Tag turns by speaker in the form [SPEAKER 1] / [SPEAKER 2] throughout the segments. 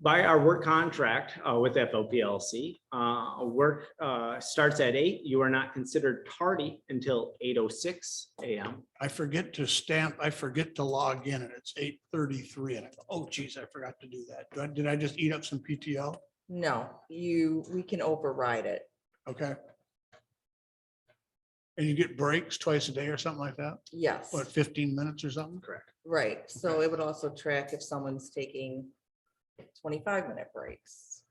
[SPEAKER 1] by our work contract uh, with FOPLC, uh, work uh, starts at eight. You are not considered tardy until eight oh six AM.
[SPEAKER 2] I forget to stamp, I forget to log in and it's eight thirty-three and I go, oh geez, I forgot to do that. Do I- Did I just eat up some PTO?
[SPEAKER 3] No, you, we can override it.
[SPEAKER 2] Okay. And you get breaks twice a day or something like that?
[SPEAKER 3] Yes,
[SPEAKER 2] What, fifteen minutes or something?
[SPEAKER 3] right. So it would also track if someone's taking twenty-five minute breaks.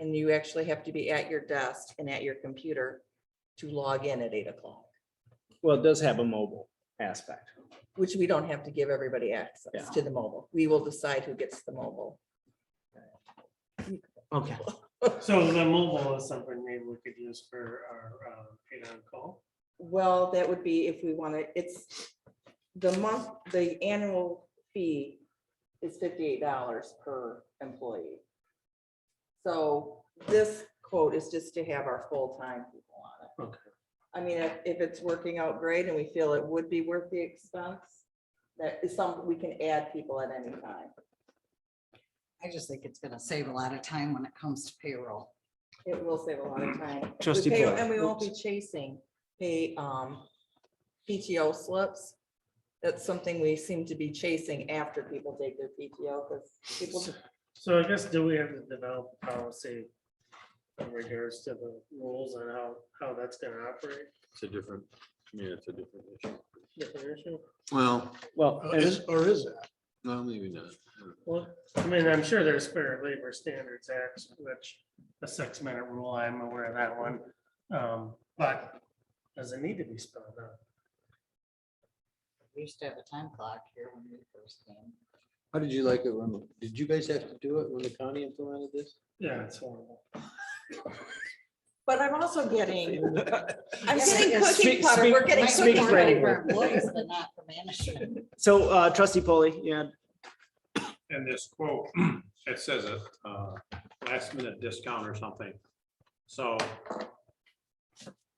[SPEAKER 3] And you actually have to be at your desk and at your computer to log in at eight o'clock,
[SPEAKER 1] Well, it does have a mobile aspect.
[SPEAKER 3] which we don't have to give everybody access
[SPEAKER 1] Yeah.
[SPEAKER 3] to the mobile. We will decide who gets the mobile.
[SPEAKER 1] Okay.
[SPEAKER 4] So the mobile is something maybe we could use for our uh, paid on call.
[SPEAKER 3] Well, that would be if we want to, it's the month, the annual fee is fifty-eight dollars per employee. So this quote is just to have our full-time people on it.
[SPEAKER 4] Okay.
[SPEAKER 3] I mean, if, if it's working out great and we feel it would be worth the expense, that is something we can add people at any time.
[SPEAKER 5] I just think it's gonna save a lot of time when it comes to payroll.
[SPEAKER 3] It will save a lot of time. We
[SPEAKER 1] Trustee
[SPEAKER 3] pay-
[SPEAKER 1] Paul.
[SPEAKER 3] And we won't be chasing the um PTO slips. That's something we seem to be chasing after people take their PTO because people, just-
[SPEAKER 4] So I guess do we have to develop a policy in regards to the rules and how, how that's gonna operate?
[SPEAKER 6] It's a different, yeah, it's a different issue.
[SPEAKER 4] Different issue?
[SPEAKER 6] Well,
[SPEAKER 1] Well,
[SPEAKER 2] Or
[SPEAKER 1] and-
[SPEAKER 2] Oh, Is, or is that?
[SPEAKER 6] no, maybe not.
[SPEAKER 4] Well, I mean, I'm sure there's fair labor standards act, which a six minute rule, I'm aware of that one. Um, But does it need to be spelled out?
[SPEAKER 5] We used to have a time clock here when we first came.
[SPEAKER 6] How did you like it, when Did you guys have to do it when the county implemented this?
[SPEAKER 4] Yeah, it's horrible.
[SPEAKER 3] but I'm also getting, I'm
[SPEAKER 5] Yeah,
[SPEAKER 3] getting
[SPEAKER 5] because
[SPEAKER 3] cookie
[SPEAKER 1] speak-
[SPEAKER 3] cutter. We're
[SPEAKER 1] speak-
[SPEAKER 3] getting
[SPEAKER 1] speak
[SPEAKER 3] cookie
[SPEAKER 5] We're ready
[SPEAKER 3] cutter.
[SPEAKER 1] framework.
[SPEAKER 5] for employees, but not for management.
[SPEAKER 1] so uh, trustee Polly, yeah,
[SPEAKER 7] And this quote, it says a uh, last minute discount or something. So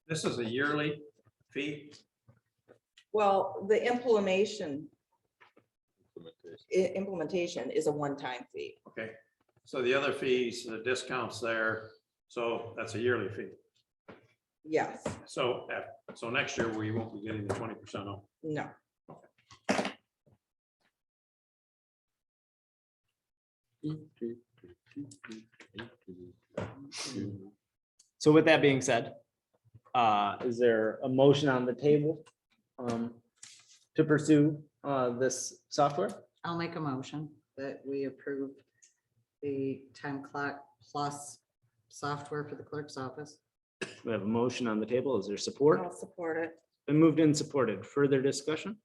[SPEAKER 7] this is a yearly fee.
[SPEAKER 3] Well, the implementation, i- implementation is a one-time fee.
[SPEAKER 7] Okay. So the other fees, the discounts there, so that's a yearly fee.
[SPEAKER 3] Yes,
[SPEAKER 7] So, uh, so next year we won't be getting the twenty percent off.
[SPEAKER 3] no.
[SPEAKER 1] so with that being said, uh, is there a motion on the table um, to pursue uh, this software?
[SPEAKER 5] I'll make a motion that we approve the time clock plus software for the clerk's office.
[SPEAKER 1] We have a motion on the table. Is there support?
[SPEAKER 3] I'll support it.
[SPEAKER 1] Been moved and supported. Further discussion?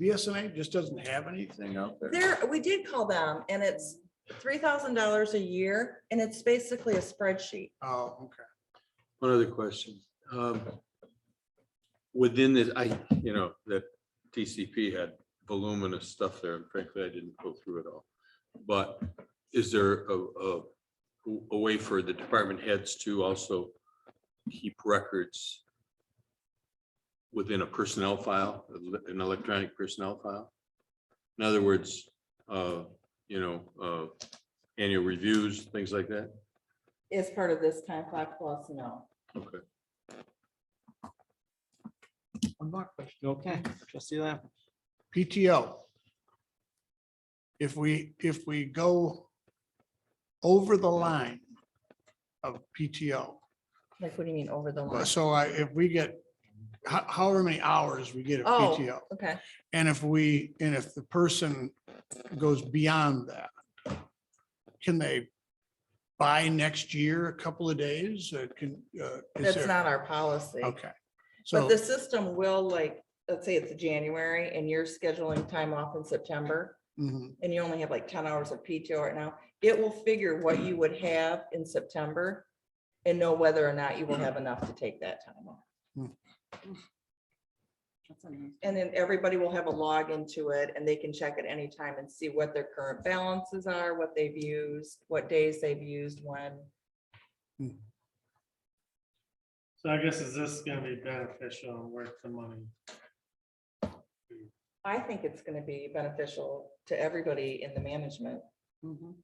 [SPEAKER 2] BSNA just doesn't have anything.
[SPEAKER 3] There, we did call them and it's three thousand dollars a year and it's basically a spreadsheet.
[SPEAKER 2] Oh, okay.
[SPEAKER 6] One other question. Um, Within this, I, you know, that TCP had voluminous stuff there, and frankly, I didn't go through it all. But is there a, a, a way for the department heads to also keep records within a personnel file, an electronic personnel file? In other words, uh, you know, uh, annual reviews, things like that?
[SPEAKER 3] Is part of this time clock plus, no.
[SPEAKER 6] Okay.
[SPEAKER 1] One more question. Okay, trustee Lamb.
[SPEAKER 2] PTO. If we, if we go over the line of PTO,
[SPEAKER 3] Like, what do you mean over the line?
[SPEAKER 2] so I, if we get ho- however many hours we get of
[SPEAKER 3] Oh.
[SPEAKER 2] PTO.
[SPEAKER 3] Okay,
[SPEAKER 2] And if we, and if the person goes beyond that, can they buy next year a couple of days? Uh, Can, uh, is
[SPEAKER 3] that's
[SPEAKER 2] there-
[SPEAKER 3] not our policy.
[SPEAKER 2] Okay.
[SPEAKER 3] But
[SPEAKER 2] So,
[SPEAKER 3] the system will like, let's say it's January and you're scheduling time off in September
[SPEAKER 2] mhm,
[SPEAKER 3] and you only have like ten hours of PTO right now, it will figure what you would have in September and know whether or not you will have enough to take that time off.
[SPEAKER 5] That's a nice-
[SPEAKER 3] And then everybody will have a log into it and they can check at any time and see what their current balances are, what they've used, what days they've used, when.
[SPEAKER 4] So I guess is this gonna be beneficial and worth the money?
[SPEAKER 3] I think it's gonna be beneficial to everybody in the management
[SPEAKER 5] Mhm.